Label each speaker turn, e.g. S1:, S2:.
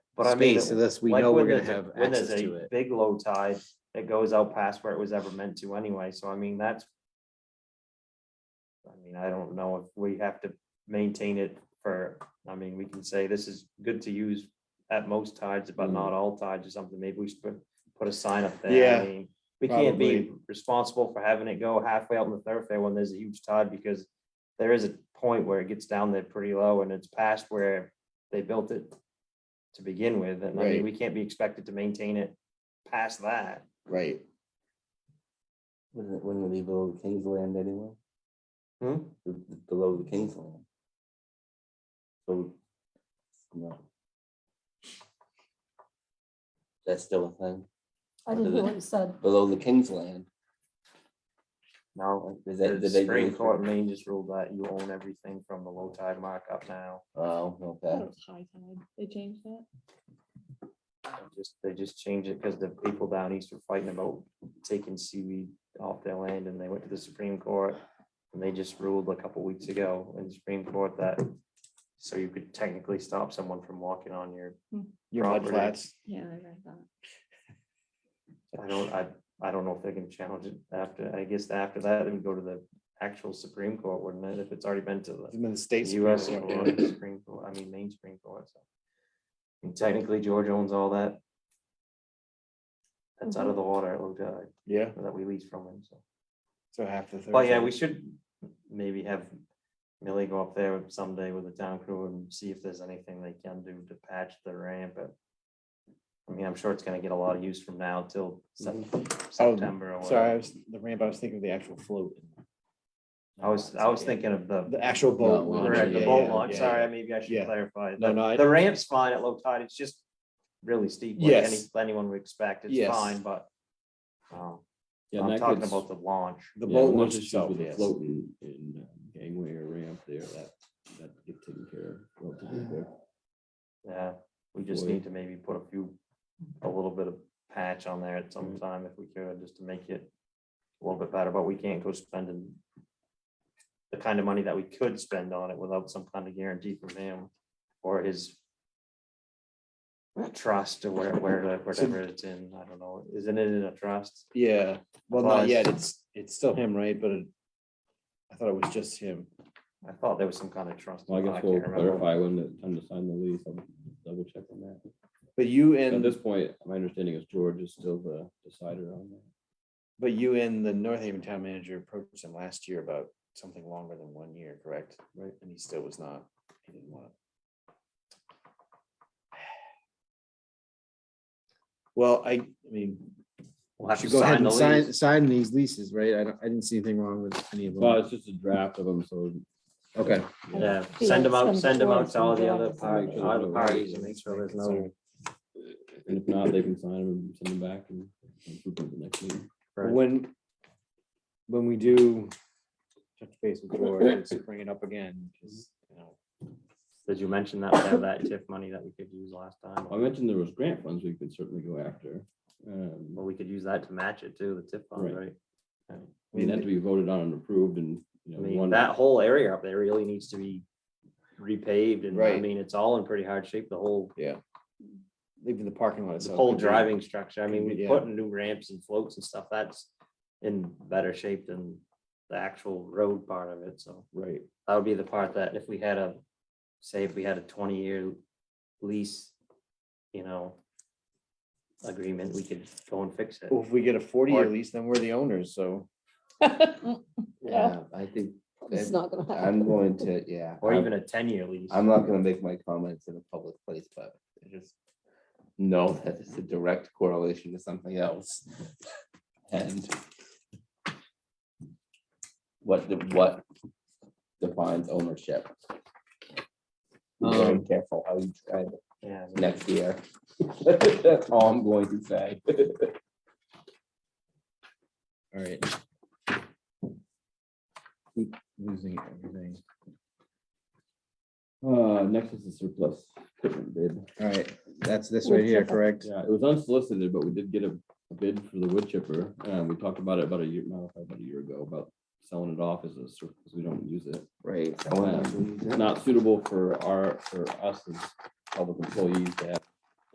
S1: But I mean,
S2: space unless we
S1: like
S2: know
S1: when
S2: we're gonna
S1: there's a-
S2: have
S1: when
S2: access
S1: there's
S2: to
S1: a
S2: it.
S1: big low tide that goes out past where it was ever meant to anyway, so I mean, that's. I mean, I don't know if we have to maintain it for, I mean, we can say this is good to use at most tides, but
S2: Mm.
S1: not all tides or something, maybe we should put, put a sign up there. I
S3: Yeah,
S1: mean, We can't be
S3: probably.
S1: responsible for having it go halfway out in the thoroughfare when there's a huge tide, because there is a point where it gets down there pretty low and it's past where they built it to begin with, and I mean,
S3: Right.
S1: we can't be expected to maintain it past that.
S3: Right.
S4: Wouldn't it, wouldn't it be below the Kingsland anyway?
S1: Hmm?
S4: B- b- Below the Kingsland? So, no. That's still a thing,
S5: I didn't hear what you said.
S4: below the Kingsland,
S1: No,
S4: is that,
S1: the
S4: did they?
S1: Supreme
S4: really-
S1: Court in Maine just ruled that you own everything from the low tide mark up now.
S4: Oh, okay,
S6: was high tide. They changed that.
S1: They Just, they just changed it because the people down east were fighting about taking seaweed off their land, and they went to the Supreme Court. And they just ruled a couple weeks ago in the Supreme Court that, so you could technically stop someone from walking on your,
S3: Your mud
S1: Property.
S3: flats.
S6: Yeah, I read that.
S1: I don't, I, I don't know if they can challenge it after, I guess after that, it would go to the actual Supreme Court, wouldn't it, if it's already been to the.
S3: It's been the states.
S1: US or Supreme Court, I mean, main Supreme Court, so. And technically, George owns all that. That's out of the water, it looked like,
S3: Yeah,
S1: that we lease from him, so.
S3: so half the.
S1: But Oh, yeah,
S3: Thursday.
S1: we should maybe have Millie go up there someday with the town crew and see if there's anything they can do to patch the ramp, but. I mean, I'm sure it's gonna get a lot of use from now till Sep- September or
S3: Mm-hmm. Oh, Sorry, I
S1: whatever.
S3: was, the ramp, I was thinking of the actual float.
S1: I was, I was thinking of the.
S3: The actual boat.
S4: No,
S3: launch,
S4: yeah,
S1: Correct, the
S3: Oh, yeah,
S1: boat
S3: yeah,
S1: launch,
S3: yeah,
S1: sorry, maybe I should
S3: Yeah.
S1: clarify.
S3: No,
S1: The-
S3: no, I-
S1: The ramp's fine at low tide, it's just really steep, like any,
S3: Yes.
S1: anyone would expect, it's
S3: Yes.
S1: fine, but. um,
S7: Yeah,
S1: I'm
S7: that
S1: talking
S7: gets-
S1: about the launch,
S3: The
S7: yeah,
S3: boat
S7: there's
S3: launch
S7: issues
S3: itself,
S7: with the
S3: yes.
S7: Floating and uh, gangway or ramp there, that, that could get taken care of. relatively quick.
S1: yeah, we just
S7: Boy.
S1: need to maybe put a few, a little bit of patch on there at
S7: Mm.
S1: some time if we could, just to make it. A little bit better, but we can't go spending. The kind of money that we could spend on it without some kind of guarantee from him or his. Trust or where, where, whatever it's in, I don't know, isn't it in a trust?
S3: Yeah, well, not
S1: Applies.
S3: yet, it's, it's still him, right, but it- I thought it was just him.
S1: I thought there was some kind of trust.
S7: Well, I
S1: but
S7: guess
S1: can't
S7: we'll
S1: remember.
S7: clarify when the time to sign the lease, I'll double check on that.
S3: But you
S7: At
S3: and,
S7: this point, my understanding is George is still the decider on that.
S3: but you and the North Haven Town Manager approached him last year about something longer than one year, correct? Right. And he still was not, he didn't want it. Well, I, I mean,
S1: We'll have to
S3: should go ahead
S1: sign the
S3: and sign,
S1: lease.
S3: sign these leases, right? I don't, I didn't see anything wrong with any of
S7: Well,
S3: them.
S7: it's just a draft of them, so
S3: Okay.
S1: Yeah,
S5: Yeah,
S1: send them out,
S5: send
S1: send them
S5: before,
S1: out to all
S5: send
S1: the
S5: them
S1: other
S5: after.
S1: parties,
S7: Make sure
S1: other parties, and make sure
S7: they're aware.
S1: there's no.
S7: and if not, they can sign them and send them back and approve them the next meeting.
S1: Right.
S3: When, when we do touch base with George, let's bring it up again, 'cause, you know,
S1: Did you mention that we have that TIF money that we could use last time?
S7: I mentioned there was grant funds we could certainly go after. Um,
S1: Well, we could use that to match it too, the TIF fund,
S7: Right.
S1: right?
S7: I mean, that to be voted on and approved and, you
S1: I
S7: know,
S1: mean,
S7: one,
S1: that whole area up there really needs to be repaved and I
S3: Right.
S1: mean, it's all in pretty hard shape, the whole,
S3: leaving the parking lot.
S1: the
S3: itself
S1: whole
S3: could be-
S1: driving structure. I mean, we
S3: Yeah.
S1: put in new ramps and floats and stuff, that's in better shape than the actual road part of it, so.
S7: right,
S1: that would be the part that if we had a, say if we had a twenty year lease, you know. Agreement, we could go and fix it.
S3: Well, If we get a forty-year
S1: Or-
S3: lease, then we're the owners, so.
S5: Mm, Yeah.
S4: yeah, I think,
S5: It's
S4: that-
S5: not gonna happen.
S4: I'm going to, yeah.
S1: Or
S4: I'm-
S1: even a ten year lease.
S4: I'm not gonna make my comments in a public place, but I just know that it's a direct correlation to something else. And what, the what defines ownership? Be Very
S7: Um,
S4: careful how you try it
S1: Yeah,
S4: next year. That's all I'm going to say.
S3: All right. Keep Losing everything.
S7: uh, next is the surplus equipment bid.
S3: All right, that's this right here, correct?
S7: Yeah, it was unsolicited, but we did get a a bid for the wood chipper. Um, we talked about it about a year, no, probably about a year ago, about selling it off as a surplus, we don't use it. Um,
S4: Right.
S7: It's Not suitable for our, for us as public employees to have